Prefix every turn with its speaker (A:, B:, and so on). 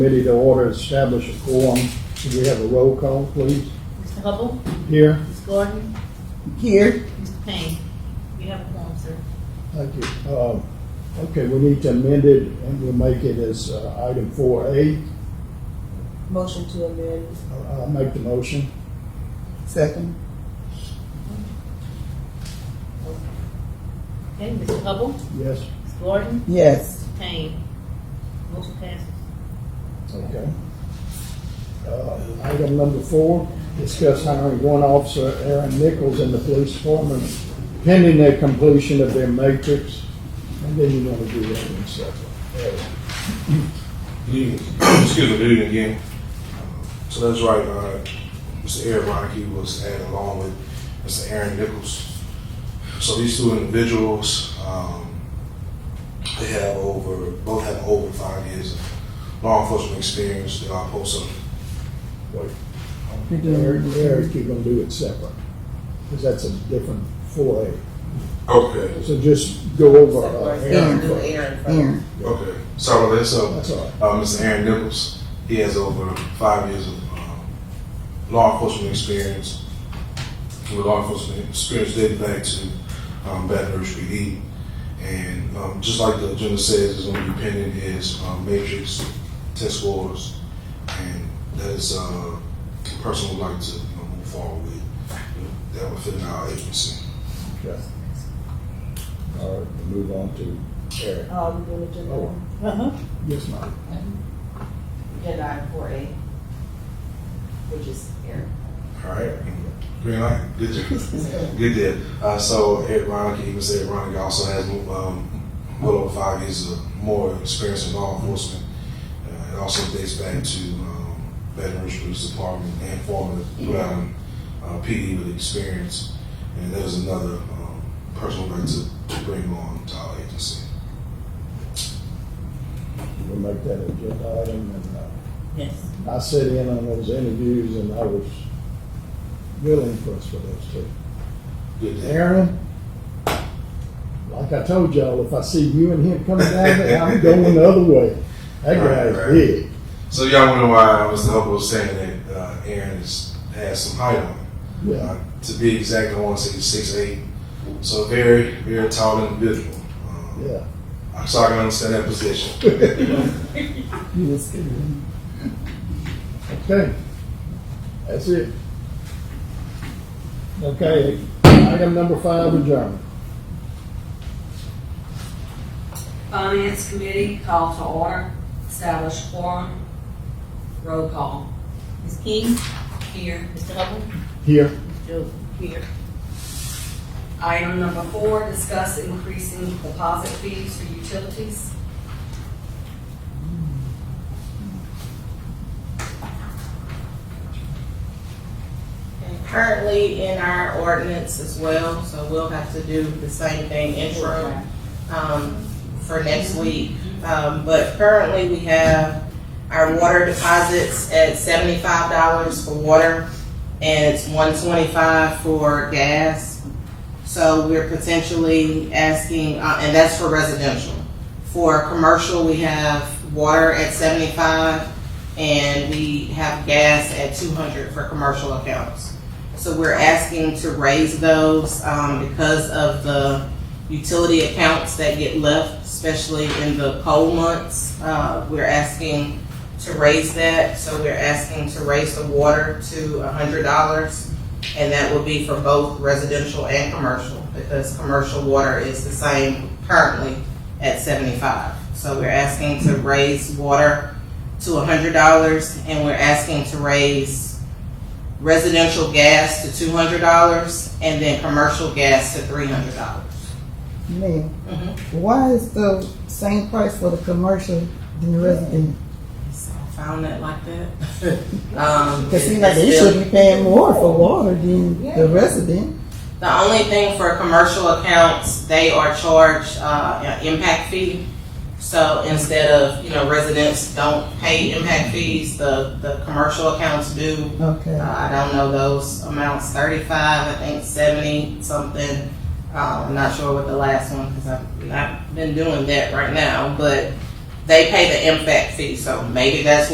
A: Committee to order, establish a quorum. Could we have a roll call, please?
B: Mr. Hubble,
A: Here,
B: Ms. Gordon,
C: Here,
B: Mr. Payne, you have a form, sir.
A: thank you. Um, Okay, we need to amend it, and we'll make it as uh, item four A.
C: motion to amend.
A: I'll make the motion.
C: Second.
B: Okay, Mr. Hubble,
A: Yes?
B: Ms. Gordon,
C: Yes.
B: Mr. Payne. Motion passes.
A: Okay. Uh, Item number four, discuss hiring one officer, Aaron Nichols, in the police department pending their completion of their matrix. And then you want to do that in separate. Uh,
D: Good evening. Excuse me, good evening again. So that's right, uh, Mr. Eric Rocky was added along with Mr. Aaron Nichols. So these two individuals, um, they have over, both have over five years of law enforcement experience. They are both
A: wait.
C: You're
A: Eric,
C: doing-
A: Eric, you're gonna do it separate, because that's a different four A.
D: Okay,
A: So just go over uh, Aaron
C: Aaron.
A: first.
C: Aaron.
D: okay. Sorry about that. So
A: That's all right.
D: Uh, Mr. Aaron Nichols, he has over five years of um, law enforcement experience. With law enforcement experience dating back to um, Baton Rouge PD. And um, just like the agenda says, is going to be pending his um, matrix test scores. And that is uh, a person would like to you know, move forward with. That would fit in our agency.
A: Okay. All right, we'll move on to Eric.
E: Oh, you doing agenda?
A: Oh.
E: item?
B: Uh-huh.
A: Yes, ma'am.
E: Agenda item four A, which is Eric.
D: All right. Green light. Good job. Good deal. Uh, so Ed Ronick, even said Ronick also has um, well over five years of more experience in law enforcement. Uh, it also dates back to um, Baton Rouge Police Department and former Brown uh, PD with experience. And there's another um, personal right to, to bring on to our agency.
A: We'll make that agenda item, and uh,
B: Yes.
A: I sat in on those interviews, and I was really impressed with those two.
D: Good deal.
A: Aaron, like I told y'all, if I see you and him coming down there, I'm going the other way. That
D: Right,
A: guy's
D: right.
A: big.
D: So y'all wonder why Mr. Hubble was saying that uh, Aaron has, has some height on him.
A: Yeah,
D: Uh, to be exact, I want to say six eight. So very, very tall individual. Um,
A: yeah.
D: So I can understand that position.
C: You was kidding.
A: Okay, that's it. Okay, item number five, adjourned.
F: Finance Committee, call to order, establish quorum, roll call.
B: Ms. King,
F: Here,
B: Mr. Hubble,
A: Here,
B: Joe, here.
F: item number four, discuss increasing deposit fees for utilities.
G: And Currently in our ordinance as well, so we'll have to do the same thing intro, um, for next week. Um, but currently we have our water deposits at seventy-five dollars for water and it's one twenty-five for gas. So we're potentially asking, uh, and that's for residential. For commercial, we have water at seventy-five and we have gas at two hundred for commercial accounts. So we're asking to raise those, um, because of the utility accounts that get left, especially in the cold months. Uh, we're asking to raise that, so we're asking to raise the water to hundred dollars. And that will be for both residential and commercial, because commercial water is the same currently at seventy-five. So we're asking to raise water to hundred dollars, and we're asking to raise residential gas to two hundred dollars, and then commercial gas to three hundred dollars.
C: Man, why is the same price for the commercial than the resident?
G: So I found that like that. Um,
C: Cause seems like they should be paying more for water than the resident.
G: The only thing for commercial accounts, they are charged, uh, an impact fee. So instead of, you know, residents don't pay impact fees, the, the commercial accounts do. Uh,
C: Okay.
G: I don't know those amounts, thirty-five, I think seventy something. Uh, I'm not sure what the last one, because I've not been doing that right now, but they pay the impact fee, so maybe that's